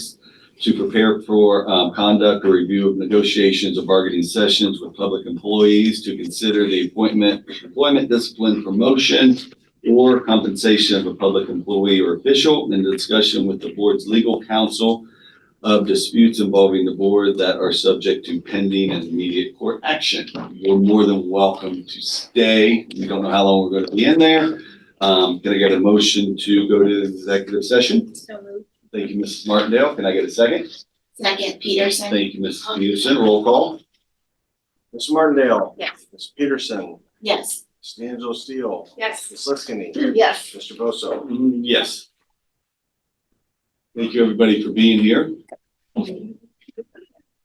to prepare for um, conduct or review of negotiations or bargaining sessions with public employees, to consider the appointment, employment discipline, promotion, or compensation of a public employee or official, and discussion with the board's legal counsel of disputes involving the board that are subject to pending and immediate court action. You're more than welcome to stay. We don't know how long we're gonna be in there. Um, can I get a motion to go to the executive session? So moved. Thank you, Mrs. Martindale. Can I get a second? Second, Peterson? Thank you, Mrs. Peterson. Roll call. Ms. Martindale. Yes. Ms. Peterson. Yes. Ms. D'Angelo Steele. Yes. Ms. Liskini. Yes. Mr. Bosso. Mm, Yes. Thank you, everybody, for being here.